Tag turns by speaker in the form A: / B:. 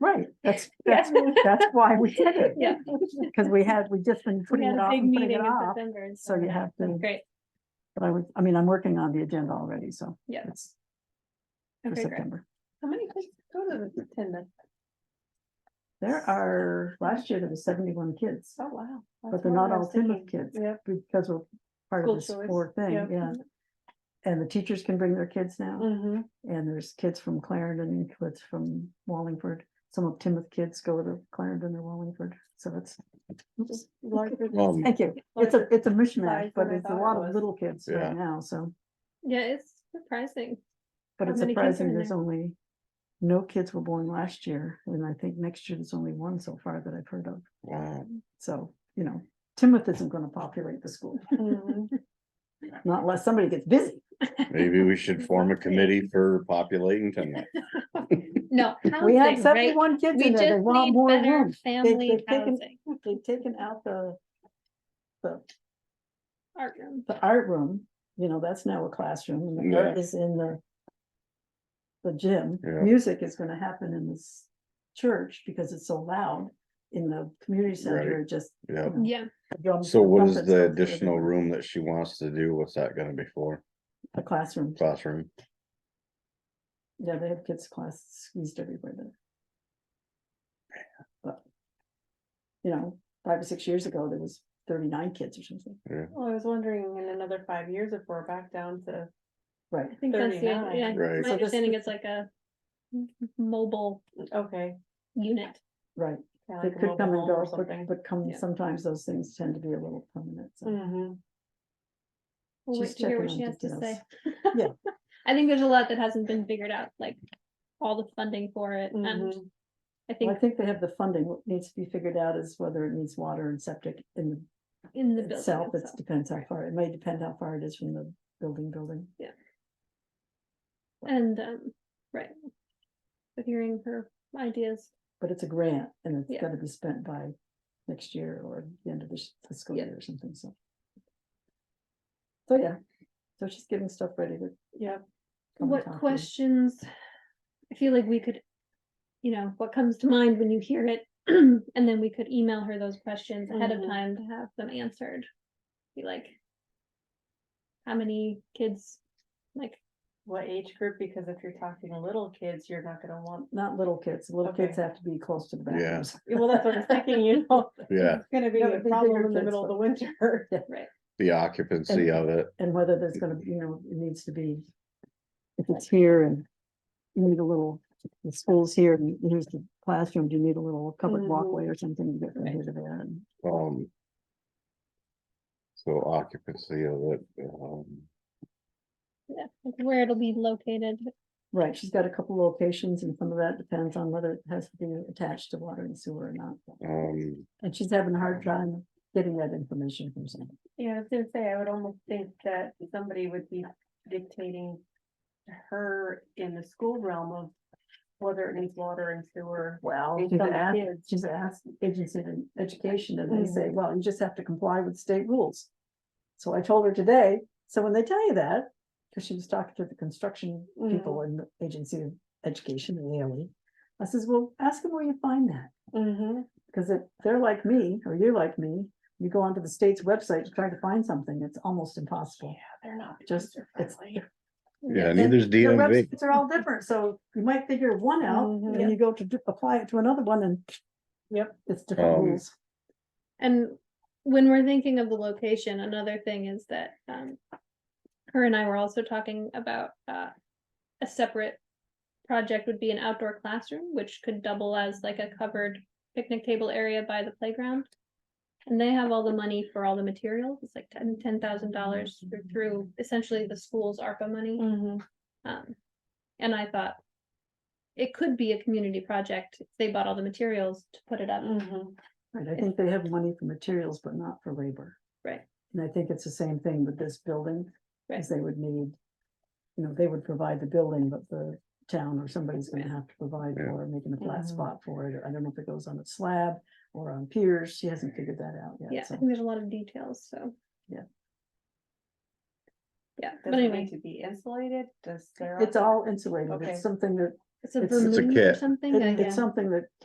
A: That's,
B: Yeah.
A: that's, that's why we did it.
B: Yeah.
A: Because we had, we just been
B: We
A: putting
B: had
A: it
B: a
A: off
B: big
A: and putting
B: meeting
A: it
B: in
A: off.
B: September. and
A: So you
B: yeah.
A: have to,
B: Great,
A: but I would, I mean, I'm working on the agenda already, so.
B: Yeah.
A: it's For
B: okay, great.
A: September.
B: How many kids go to the attendance?
A: There are, last year there was seventy-one kids,
B: Oh, wow.
A: but they're not all Plymouth kids.
B: Yeah.
A: Because we're part
B: School
A: of this
B: choice,
A: four thing,
B: yeah.
A: yeah. And the teachers can bring their kids now,
B: Mm-hmm,
A: and there's kids from Clarendon, kids from Wallingford. Some of Timoth kids go to Clarendon or Wallingford, so it's,
B: just larger.
C: Um,
A: thank you. It's a, it's a mishmash,
B: size
A: but
B: than I
A: it's a
B: thought it
A: lot of
B: was.
A: little kids
C: Yeah.
A: right now, so.
B: Yeah, it's surprising.
A: But
B: How
A: it's
B: many kids are
A: surprising,
B: in
A: there's
B: there?
A: only, no kids were born last year, and I think next year there's only one so far that I've heard of,
C: wow,
A: so, you know. Timoth isn't gonna populate the school, Mm-hmm.
B: Mhm.
A: not unless somebody gets busy.
C: maybe we should form a committee for populating tonight.
B: No.
A: We have
B: housing, right?
A: seventy-one kids
B: We
A: in there, they
B: just
A: want
B: need
A: more
B: better
A: room.
B: family
A: they've taken-
B: housing,
A: They've taken out the, the,
B: art room.
A: the art room, you know, that's now a classroom, and the art is in the the gym.
C: Yeah.
A: Music is gonna happen in this church because it's so loud in the community center,
C: Right.
A: it just.
C: Yeah,
A: you know,
B: Yeah,
A: drums
C: so
A: and
C: what is
A: trumpets go
C: the
A: through
C: additional
A: everything.
C: room that she wants to do? What's that gonna be for?
A: A classroom,
C: Classroom?
A: yeah, they have kids class squeezed everywhere there. But, You know, five or six years ago, there was thirty-nine kids or something,
D: Well, I was wondering in another five years if we're back down to,
A: right?
B: I think that's, the-
D: 39,
B: yeah,
C: right.
B: my
A: So this
B: understanding
A: is-
B: it's like a m- mobile
D: okay.
B: unit.
A: Right,
D: kinda
A: they
D: like a
A: could
D: mobile
A: come and
D: home or
A: go, but,
D: something.
A: but come,
B: Yeah.
A: sometimes those things tend to be a little permanent, so.
D: Mhm.
B: We'll wait
A: She's
B: to hear what
A: checking
B: she
A: on
B: has to say.
A: Yeah.
B: I think there's a lot that hasn't been figured out, like all the funding for it and
D: Mhm.
B: I
A: Mm-hmm. Well, I
B: think
A: think they have the funding, what needs to be figured out is whether it needs water and septic in
B: in the building.
A: itself, it
B: itself.
A: depends how far, it may depend how far it is from the building, building.
B: And, um, right. But hearing her ideas,
A: But it's a grant and it's
B: Yeah.
A: gotta be spent by next year or the end of this fiscal
B: Yeah.
A: year or something, so. So, yeah, so she's getting stuff ready to.
D: Yep.
A: come and
B: what
A: talk to you.
B: questions? I feel like we could, you know, what comes to mind when you hear it, and then we could email her those questions ahead of
A: Mm-hmm.
B: time
D: Mhm.
B: to have them answered. Be like. How many kids, like,
D: What age group? Because if you're talking little kids, you're not gonna want,
A: Not little kids, little kids
D: Okay.
A: have to be close to the
C: Yeah.
A: bathrooms.
D: well, that's what I'm thinking, you know.
C: Yeah,
D: It's gonna be
A: Yeah, but
D: a
A: the
D: problem
A: bigger
D: in the
A: kids,
D: middle of
A: but-
D: the winter.
C: the occupancy of it.
A: And whether there's gonna, be, you know, it needs to be, if it's here and you need a little, the school's here and here's the classroom, do you need a little covered
D: Mhm.
A: walkway or something to get from
B: Mm. Right.
A: here to there? And
C: Um. So occupancy of it, um,
B: yeah, like where it'll be located,
A: Right, she's got a couple locations and some of that depends on whether it has to be attached to water and sewer or not.
C: um,
A: And she's having a hard time getting that information from someone.
D: Yeah, I was gonna say, I would almost think that somebody would be dictating to her in the school realm of whether it needs water and sewer.
A: Well.
D: based
A: She's
D: on the
A: asked,
D: kids.
A: she's asked agency in education and they say, well, you just have to comply with state rules. So I told her today, so when they tell you that, because she was talking to the construction people in the agency of education in the LE. I says, well, ask them where you find that.
D: Mhm.
A: Because if they're like me, or you're like me, you go onto the state's website to try to find something, it's almost impossible.
D: Yeah, they're not.
A: Just, it's.
D: user-friendly.
C: yeah,
A: and
C: neither's
A: Their
C: DMV.
A: websites are all different, so you might figure one out, Mm, and
D: Mhm.
A: then you go to d- apply it to another one and.
D: Yep.
A: It's different
C: Um,
A: rules.
B: And when we're thinking of the location, another thing is that, um, her and I were also talking about, uh, a separate project would be an outdoor classroom, which could double as like a covered picnic table area by the playground. And they have all the money for all the materials. It's like ten, ten thousand dollars through essentially the school's ARPA money.
D: Mhm.
B: Um, and I thought it could be a community project. if They bought all the materials to put it up.
D: Mhm.
A: Right, I think they have money for materials, but not for labor.
B: Right.
A: And I think it's the same thing with this building,
B: Right.
A: as they would need. You know, they would provide the building, but the town or somebody's gonna have to provide
C: Yeah.
A: for making a flat
D: Mhm.
A: spot for it, or I don't know if it goes on a slab or on piers, she hasn't figured that out
B: Yeah,
A: yet,
B: I
A: so.
B: think there's a lot of details, so.
A: Yeah.
B: Yeah,
D: Does
B: but
D: it need
B: anyway,
D: to be insulated? Does there?
A: It's all insulated,
D: Okay.
A: it's something that,
B: it's a
A: it's- it's a
B: vermouth or
C: kit.
B: something,
A: it-
B: I
A: it's something that